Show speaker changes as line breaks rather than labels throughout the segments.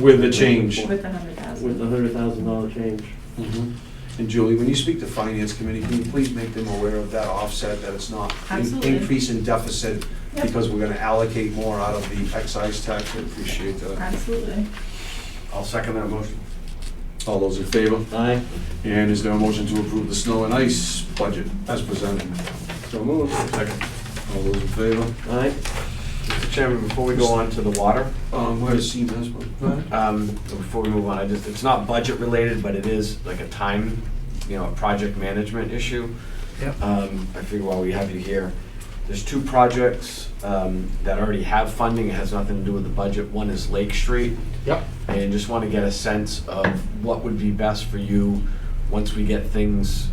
With the change.
With a hundred thousand.
with the hundred thousand dollar change.
Mhm.
Mm-hmm. And Julie, when you speak to Finance Committee, can you please make them aware of that offset, that it's not an
Absolutely.
increase in deficit
Yep.
because we're gonna allocate more out of the excise tax? I appreciate that.
Absolutely.
I'll second that motion.
All those in favor?
Aye,
And is there a motion to approve the snow and ice budget as presented?
so moved.
Second.
All those in favor?
Aye,
Mr. Chairman, before we go on to the water,
Um, where's CMAS? Go ahead.
um, before we move on, I just, it's not budget related, but it is like a time, you know, a project management issue.
Yep.
Um, I figure while we have you here, there's two projects, um, that already have funding, it has nothing to do with the budget. One is Lake Street,
Yep.
and just want to get a sense of what would be best for you once we get things,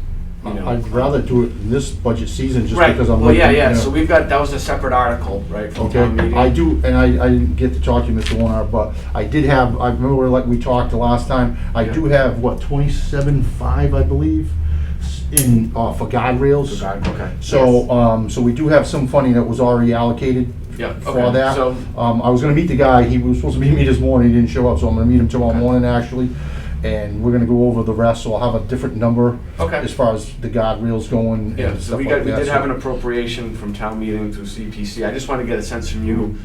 you know.
I'd rather do it in this budget season, just
Right,
because I'm.
well, yeah,
looking, you
yeah,
know.
so we've got, that was a separate article, right, from town
Okay,
meeting?
I do, and I, I didn't get to talk to you, Mr. Warner, but I did have, I remember like we talked the last time, I
Yeah.
do have, what, twenty-seven five, I believe, s- in, uh, for guardrails.
Forgot, Okay.
So, um, so we do have some funding that was already allocated
Yeah,
for
okay,
that.
so-
Um, I was gonna meet the guy, he was supposed to meet me this morning, he didn't show up, so I'm gonna meet him tomorrow
Okay.
morning, actually. And we're gonna go over the rest, so I'll have a different number.
Okay.
As far as the guardrails going
Yeah,
and
so
stuff
we
like
got,
that.
we did have
so-
an appropriation from town meeting through CPC. I just want to get a sense from you,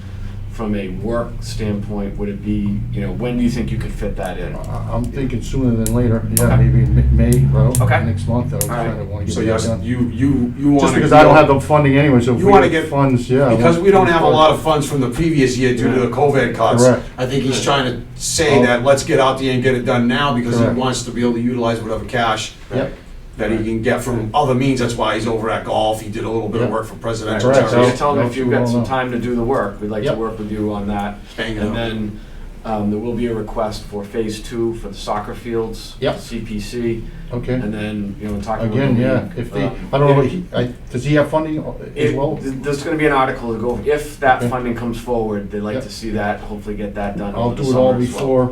from a work standpoint, would it be, you know, when do you think you could fit that in? All
I- I'm thinking sooner than later, yeah,
Okay.
maybe in Ma- May, well,
Okay.
next month, I
All right.
kinda wanna
So
get
yes,
that done.
you, you, you want to.
Just because I don't have the funding anyway, so if
You
we
wanna
get
get-
funds, yeah. I
Because
want-
we don't have a lot of funds from the previous year due to the COVID cuts.
Correct. Oh.
I think he's trying to say that, let's get out there and get it done now, because he
Correct.
wants to be able to utilize whatever cash
Yep,
that he can get from other means, that's why he's over at golf, he did a little bit of work for presidential
Correct.
So you
terrorism.
tell them if
Nope,
you've
we
got
won't
some
know.
time to do the work, we'd like to
Yep.
work with you on that.
Bang it
And
out.
then, um, there will be a request for phase two for the soccer fields.
Yep.
CPC,
okay,
and then, you know, talking about.
again, yeah, if they,
uh,
I don't know, he- I, does he have funding uh, as
It-
well?
th- There's gonna be an article to go, over. if that
Okay.
funding comes forward, they'd like
Yep.
to see that, hopefully get that done
I'll
over the
do it all
summer as well.
before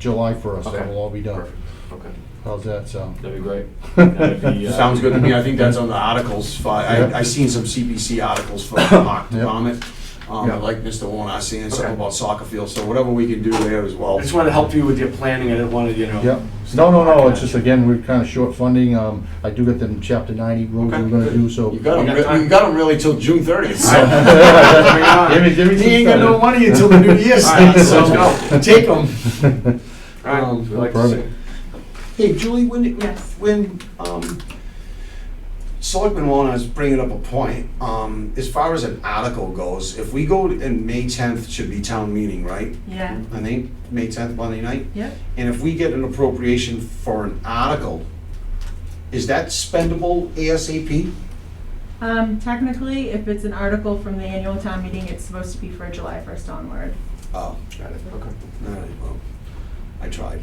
July first,
Okay.
it'll all be done.
Perfect. Okay,
How's that sound?
that'd be great. That'd be, uh,
Sounds good to me, I think that's on the articles, fi-
Yeah.
I, I seen some CBC articles for Hawk to
Yeah.
comment. Um,
Yeah.
like Mr. Warren, I seen something
Okay.
about soccer field, so whatever we can do there as well.
I just wanted to help you with your planning, I didn't wanna, you know.
Yep, no,
stop
no, no,
barking
it's
at
just,
you.
again, we're kinda short funding, um, I do get them chapter ninety roads
Okay,
we're gonna do, so.
You got
We got
them,
time.
you got them really till June thirtieth,
Give me, give
uh,
me
He
some
ain't got no
credit.
money until the new year
Alright,
starts,
so
so
let's go.
take them.
Alright,
Um,
we'd like to see.
perfect.
Hey, Julie, when,
Yes.
when, um, Selectman Warner is bringing up a point, um, as far as an article goes, if we go, to- and May tenth should be town meeting, right?
Yeah,
I think, May tenth, Monday night,
yep.
and if we get an appropriation for an article, is that spendable ASAP?
Um, technically, if it's an article from the annual town meeting, it's supposed to be for July first onward.
Oh,
Got it, okay.
all right, well, I tried.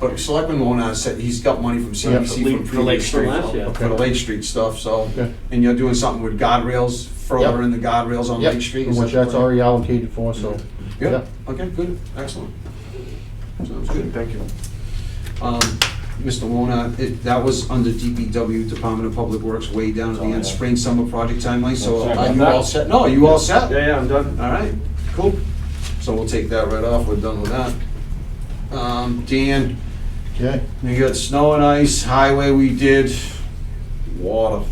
But Selectman Warner said he's got money from CPC
Yeah,
from
for Lake
previous
Street.
from last year.
for the Lake Street stuff, so,
Okay.
and you're doing something with guardrails, further in the guardrails on
Yep,
Lake Street? is
which
that the
that's
plan?
already allocated for, so.
Good, okay, good, excellent. Sounds good.
Thank you.
Um, Mr. Wona, it- that was under DPW, Department of Public Works, way down at the end, spring, summer project timeline, so are you all set? No, are you all set?
yeah, yeah, I'm done.
All right, cool. So we'll take that right off, we're done with that. Um, Dan,
Okay,
we got snow and ice, highway we did, water.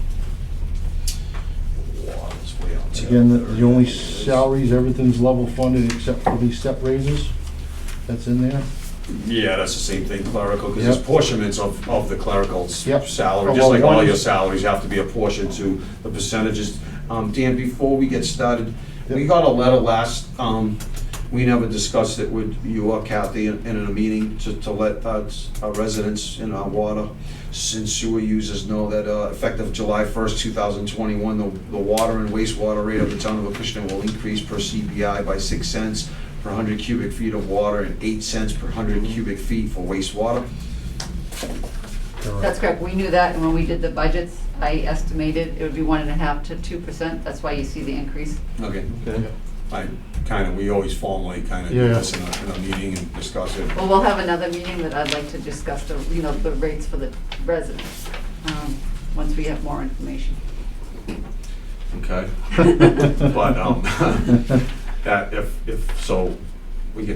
Water's way out there.
again, the- the only salaries, everything's level funded except for the step raises that's in there.
Yeah, that's the same thing clerical, because there's
Yep.
portionments of, of the clerical s-
Yep.
salary,
Oh,
just
well,
like
one
all
is-
your salaries have to be apportioned to the percentages. Um, Dan, before we get started, we
Yep.
got a letter last, um, we never discussed it with you or Kathy in, in a meeting to, to let uh, our residents in our water and sewer users know that uh, effective July first, two thousand twenty-one, the, the water and wastewater rate of the town of Acushnet will increase per CBI by six cents per hundred cubic feet of water and eight cents per hundred cubic feet for wastewater.
That's correct, we knew that, and when we did the budgets, I estimated it would be one and a half to two percent, that's why you see the increase.
Okay,
Okay.
I kind of, we always formally kind of do
Yeah.
this in a, in a meeting and discuss it.
Well, we'll have another meeting that I'd like to discuss the, you know, the rates for the residents, um, once we have more information.
Okay. But, um, that, if, if, so,